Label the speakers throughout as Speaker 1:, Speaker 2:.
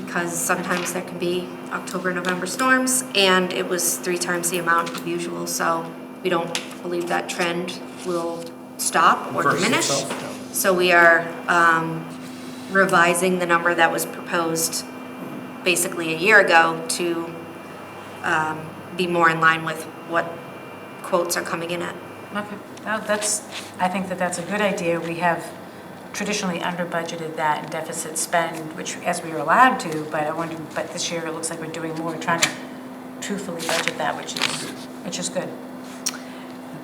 Speaker 1: because sometimes there can be October, November storms, and it was three times the amount of usual, so we don't believe that trend will stop or
Speaker 2: Reverse
Speaker 1: diminish.
Speaker 2: itself,
Speaker 1: So we are um, revising the number that was proposed basically a year ago to um, be more in line with what quotes are coming in at.
Speaker 3: Okay, Now, that's, I think that that's a good idea. We have traditionally under-budgeted that and deficit spend, which, as we were allowed to, but I wonder, but this year it looks like we're doing more, trying to truthfully budget that, which is, which is good.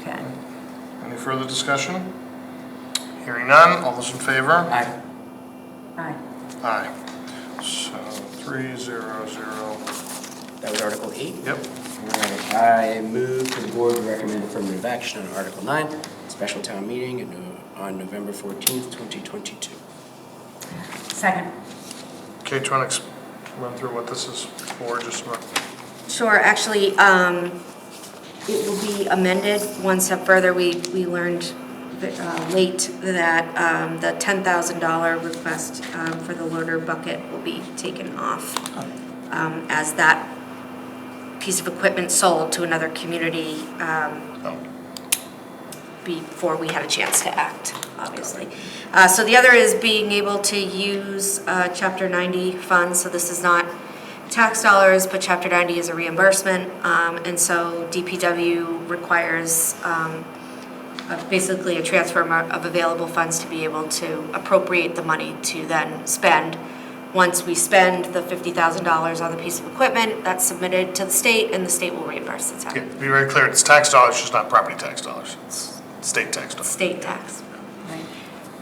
Speaker 3: Okay.
Speaker 2: Any further discussion? Hearing none, all those in favor?
Speaker 4: Aye.
Speaker 3: Aye.
Speaker 2: Aye. So three, zero, zero.
Speaker 4: That was Article 8.
Speaker 2: Yep.
Speaker 4: All right, I move to the board to recommend affirmative action on Article 9, special town meeting in, uh, on November 14th, 2022.
Speaker 3: Second.
Speaker 2: Kate, do you want to run through what this is for, just so
Speaker 1: Sure, actually, um, it will be amended one step further. We, we learned uh, late that um, the $10,000 request um, for the loader bucket will be taken off um, as that piece of equipment sold to another community um, before we had a chance to act, obviously. Uh, So the other is being able to use uh, Chapter 90 funds, so this is not tax dollars, but Chapter 90 is a reimbursement. um, And so DPW requires um, uh, basically a transfer amo- of available funds to be able to appropriate the money to then spend. Once we spend the $50,000 on the piece of equipment, that's submitted to the state, and the state will reimburse the
Speaker 2: Yeah,
Speaker 1: town,
Speaker 2: be very clear, it's tax dollars, just not property tax dollars. It's state tax dollars.
Speaker 1: state tax.
Speaker 3: Right.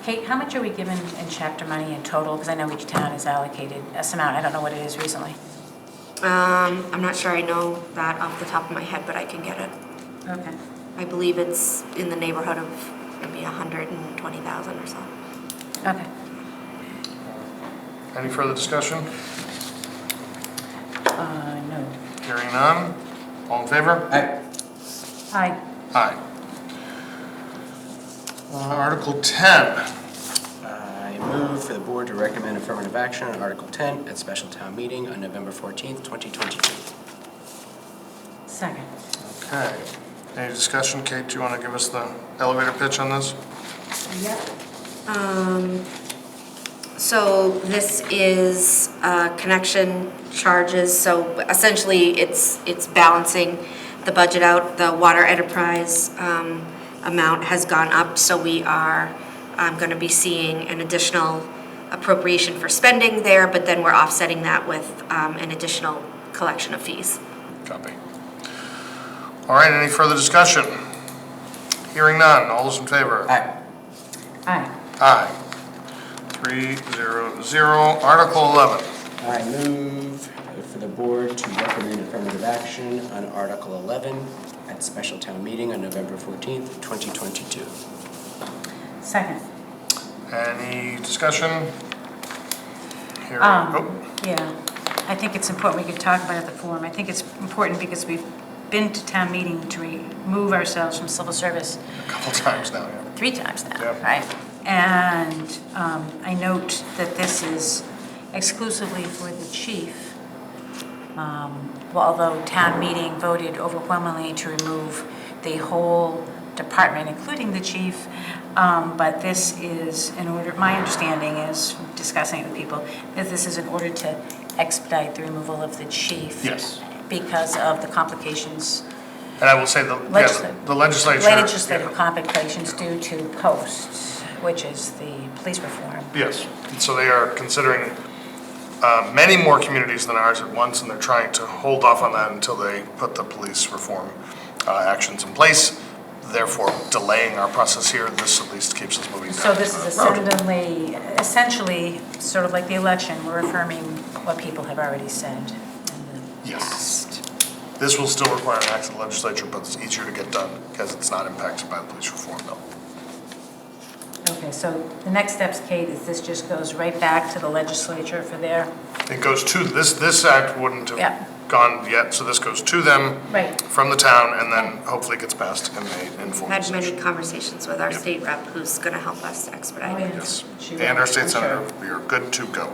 Speaker 3: Kate, how much are we given in chapter money in total? Because I know each town is allocated S amount. I don't know what it is recently.
Speaker 1: Um, I'm not sure I know that off the top of my head, but I can get it.
Speaker 3: Okay.
Speaker 1: I believe it's in the neighborhood of maybe a hundred and twenty thousand or so.
Speaker 3: Okay.
Speaker 2: Any further discussion?
Speaker 3: Uh, no.
Speaker 2: Hearing none, all in favor?
Speaker 4: Aye.
Speaker 3: Aye.
Speaker 2: Aye. Uh, Article 10,
Speaker 4: I move for the board to recommend affirmative action on Article 10 at special town meeting on November 14th, 2022.
Speaker 3: Second.
Speaker 2: okay. Any discussion, Kate, do you want to give us the elevator pitch on this?
Speaker 3: Yep.
Speaker 1: Um, so this is, uh, connection charges, so essentially it's, it's balancing the budget out. The water enterprise, um, amount has gone up, so we are, um, gonna be seeing an additional appropriation for spending there, but then we're offsetting that with, um, an additional collection of fees.
Speaker 2: Copy. All right, any further discussion? Hearing none, all those in favor?
Speaker 4: Aye.
Speaker 3: Aye.
Speaker 2: Aye. Three, zero, zero. Article 11.
Speaker 4: I move for the board to recommend affirmative action on Article 11 at special town meeting on November 14th, 2022.
Speaker 3: Second.
Speaker 2: Any discussion? Here,
Speaker 3: Um,
Speaker 2: oh,
Speaker 3: yeah, I think it's important, we could talk about it at the forum. I think it's important because we've been to town meeting to remove ourselves from civil service
Speaker 2: a couple times now, yeah.
Speaker 3: three times now,
Speaker 2: Yeah.
Speaker 3: right? And um, I note that this is exclusively for the chief, um, well, although town meeting voted overwhelmingly to remove the whole department, including the chief. um, But this is in order, my understanding is, discussing it with people, that this is in order to expedite the removal of the chief.
Speaker 2: Yes.
Speaker 3: Because of the complications
Speaker 2: And I will say, the yeah,
Speaker 3: Legislat-
Speaker 2: the legislature.
Speaker 3: legislative
Speaker 2: yeah,
Speaker 3: complications due to posts, which is the police reform.
Speaker 2: Yes, And so they are considering uh, many more communities than ours at once, and they're trying to hold off on that until they put the police reform uh, actions in place, therefore delaying our process here. This at least keeps us moving down.
Speaker 3: So this is
Speaker 2: the road.
Speaker 3: essentially, essentially, sort of like the election, we're affirming what people have already said in the
Speaker 2: Yes.
Speaker 3: past.
Speaker 2: This will still require an act of the legislature, but it's easier to get done because it's not impacted by the police reform bill.
Speaker 3: Okay, so the next steps, Kate, is this just goes right back to the legislature for their,
Speaker 2: It goes to, this, this act wouldn't
Speaker 3: Yeah.
Speaker 2: have gone yet, so this goes to them
Speaker 3: right,
Speaker 2: from the town and then hopefully gets passed in a informal
Speaker 1: Had many
Speaker 2: session.
Speaker 1: conversations with our
Speaker 2: Yep.
Speaker 1: state rep who's gonna help us
Speaker 3: Oh,
Speaker 1: expedite
Speaker 3: yeah.
Speaker 1: it.
Speaker 2: Yes,
Speaker 3: She
Speaker 2: and our
Speaker 3: will,
Speaker 2: state
Speaker 3: I'm sure.
Speaker 2: senator, we are good to go.